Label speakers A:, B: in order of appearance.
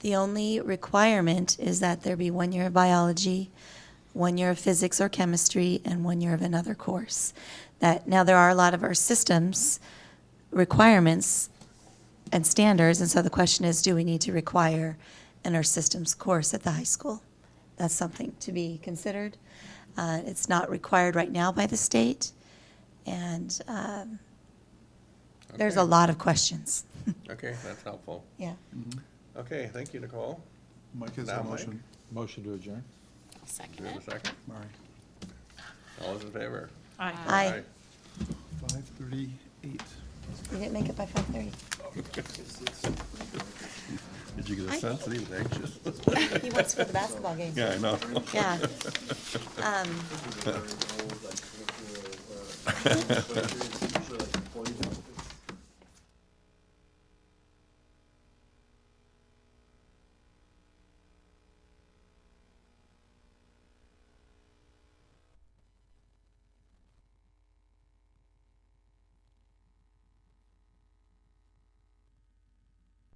A: The only requirement is that there be one year of biology, one year of physics or chemistry, and one year of another course. That, now, there are a lot of our systems requirements and standards, and so the question is, do we need to require an earth systems course at the high school? That's something to be considered. Uh, It's not required right now by the state, and um, there's a
B: Okay.
A: lot of questions.
B: Okay, that's helpful.
A: Yeah.
B: Okay, thank you, Nicole.
C: Mike has
B: Now,
C: a
B: Mike.
C: motion. Motion to adjourn.
B: Do
D: Second
B: we have a
D: it.
B: second?
C: All right.
B: All those in favor?
A: Aye.
C: Five thirty-eight.
A: We didn't make it by 5:30.
B: Did you get
A: I-
B: a sense that he was anxious?
A: He wants for the basketball game.
B: Yeah, I know.
A: Yeah. Um,